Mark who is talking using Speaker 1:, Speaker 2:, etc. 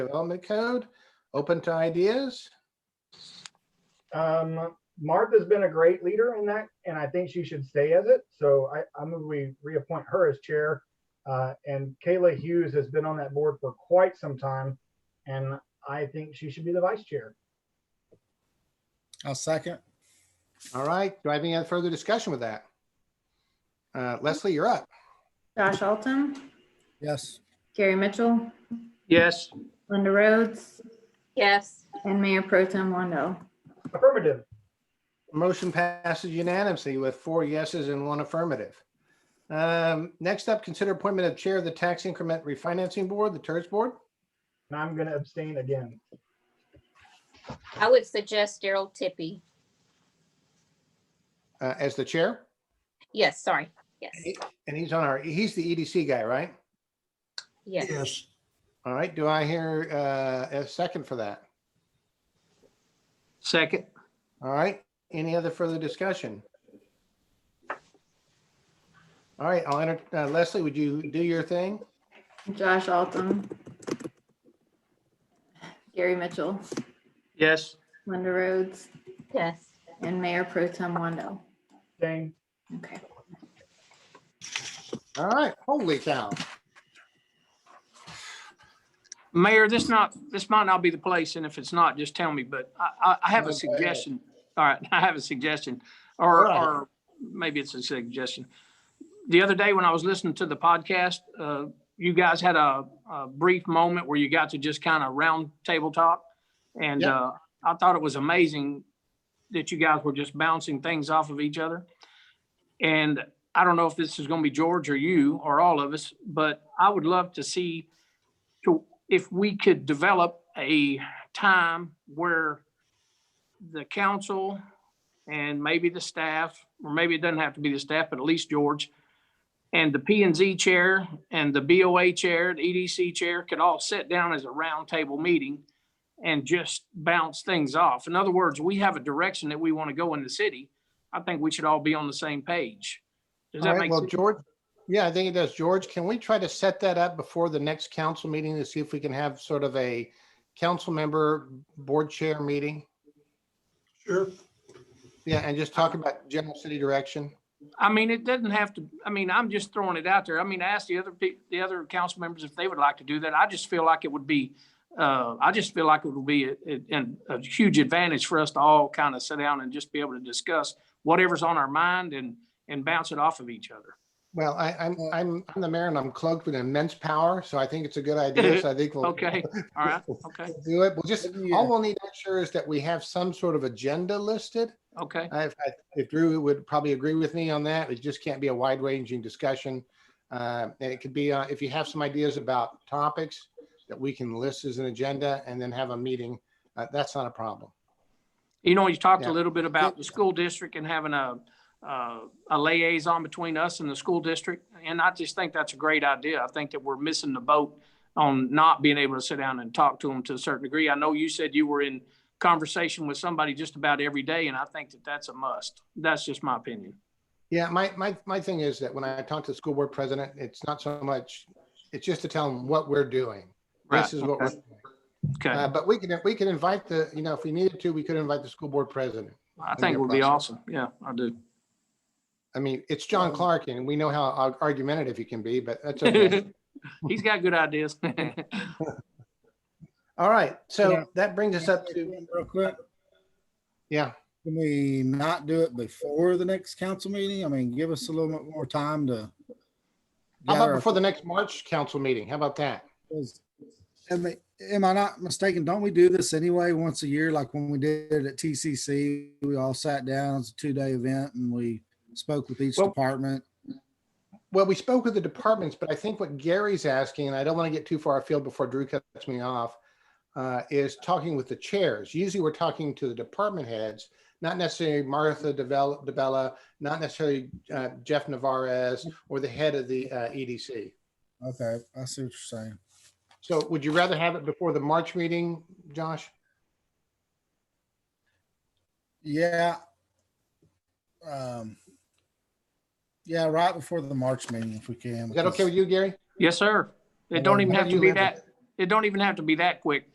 Speaker 1: Development Code, open to ideas.
Speaker 2: Um, Martha's been a great leader in that, and I think she should stay as it. So I, I move we reappoint her as chair. Uh, and Kayla Hughes has been on that board for quite some time, and I think she should be the vice chair.
Speaker 3: I'll second.
Speaker 1: All right, do I have any further discussion with that? Uh, Leslie, you're up.
Speaker 4: Josh Altum,
Speaker 3: Yes.
Speaker 4: Gary Mitchell,
Speaker 5: Yes,
Speaker 4: Linda Rhodes,
Speaker 6: Yes,
Speaker 4: and Mayor Pro Tem Wando.
Speaker 2: Affirmative.
Speaker 1: Motion passes unanimously with four yeses and one affirmative. Um, Next up, consider appointment of Chair of the Tax Increment Refinancing Board, the TERS Board.
Speaker 2: And I'm going to abstain again.
Speaker 6: I would suggest Daryl Tippy.
Speaker 1: uh, as the chair.
Speaker 6: Yes, sorry. Yes,
Speaker 1: And he's on our, he's the EDC guy, right?
Speaker 6: yes.
Speaker 3: Yes.
Speaker 1: All right, do I hear uh, a second for that?
Speaker 5: second.
Speaker 1: All right, any other further discussion? All right, I'll enter, uh, Leslie, would you do your thing?
Speaker 4: Josh Altum, Gary Mitchell,
Speaker 5: Yes,
Speaker 4: Linda Rhodes,
Speaker 6: Yes.
Speaker 4: and Mayor Pro Tem Wando.
Speaker 2: Abstain.
Speaker 4: Okay.
Speaker 1: All right, holy cow.
Speaker 5: Mayor, this not, this might not be the place, and if it's not, just tell me, but I, I, I have
Speaker 1: No, go
Speaker 5: a
Speaker 1: ahead.
Speaker 5: suggestion. All right, I have a suggestion,
Speaker 1: All
Speaker 5: or,
Speaker 1: right.
Speaker 5: or maybe it's a suggestion. The other day when I was listening to the podcast, uh, you guys had a, a brief moment where you got to just kind of round table talk. And,
Speaker 1: Yeah.
Speaker 5: uh, I thought it was amazing that you guys were just bouncing things off of each other. And I don't know if this is going to be George or you or all of us, but I would love to see to, if we could develop a time where the council and maybe the staff, or maybe it doesn't have to be the staff, but at least George and the P and Z chair and the BOA chair, the EDC chair could all sit down as a roundtable meeting and just bounce things off. In other words, we have a direction that we want to go in the city. I think we should all be on the same page. Does
Speaker 1: All
Speaker 5: that
Speaker 1: right,
Speaker 5: make
Speaker 1: well,
Speaker 5: sense?
Speaker 1: George, yeah, I think it does. George, can we try to set that up before the next council meeting to see if we can have sort of a council member board chair meeting?
Speaker 3: Sure.
Speaker 1: Yeah, and just talk about general city direction.
Speaker 5: I mean, it doesn't have to, I mean, I'm just throwing it out there. I mean, ask the other people, the other council members if they would like to do that. I just feel like it would be, uh, I just feel like it would be a, a, a huge advantage for us to all kind of sit down and just be able to discuss whatever's on our mind and, and bounce it off of each other.
Speaker 1: Well, I, I'm, I'm, I'm the mayor and I'm cloaked with immense power, so I think it's a good idea. So I think we'll.
Speaker 5: Okay, all right, okay,
Speaker 1: we'll Do it. We'll just,
Speaker 3: Maybe,
Speaker 1: all
Speaker 3: uh,
Speaker 1: we'll need to make sure is that we have some sort of agenda listed.
Speaker 5: okay.
Speaker 1: I, I- if Drew would probably agree with me on that, it just can't be a wide ranging discussion. Uh, and it could be, uh, if you have some ideas about topics that we can list as an agenda and then have a meeting, uh, that's not a problem.
Speaker 5: You know, you talked
Speaker 1: Yeah.
Speaker 5: a little bit about the school district and having a, uh, a liaison between us and the school district. And I just think that's a great idea. I think that we're missing the boat on not being able to sit down and talk to them to a certain degree. I know you said you were in conversation with somebody just about every day, and I think that that's a must. That's just my opinion.
Speaker 1: Yeah, my, my, my thing is that when I talk to the school board president, it's not so much, it's just to tell them what we're doing. This is what we're, doing.
Speaker 5: Okay,
Speaker 1: Uh, but we can, we can invite the, you know, if we needed to, we could invite the school board president.
Speaker 5: I think it would be awesome. Yeah, I do.
Speaker 1: I mean, it's John Clark and we know how ar- argumentative he can be, but that's okay.
Speaker 5: He's got good ideas.
Speaker 1: All right,
Speaker 3: Yeah.
Speaker 1: so that brings us up to,
Speaker 3: Real quick,
Speaker 1: yeah,
Speaker 3: can we not do it before the next council meeting? I mean, give us a little bit more time to.
Speaker 1: how about
Speaker 3: gather-
Speaker 1: before the next March council meeting? How about that?
Speaker 3: Am I- am I not mistaken? Don't we do this anyway, once a year, like when we did it at TCC? We all sat down, it's a two-day event and we spoke with each
Speaker 1: Well-
Speaker 3: department.
Speaker 1: Well, we spoke with the departments, but I think what Gary's asking, and I don't want to get too far afield before Drew cuts me off, uh, is talking with the chairs. Usually we're talking to the department heads, not necessarily Martha Devel- DeBella, not necessarily uh, Jeff Navarez or the head of the uh, EDC.
Speaker 3: Okay, I see what you're saying.
Speaker 1: So would you rather have it before the March meeting, Josh?
Speaker 3: Yeah. Um, yeah, right before the March meeting, if we can.
Speaker 1: Is that okay
Speaker 3: because-
Speaker 1: with you, Gary?
Speaker 5: Yes, sir. It don't even have to be that, It don't even have to be that quick.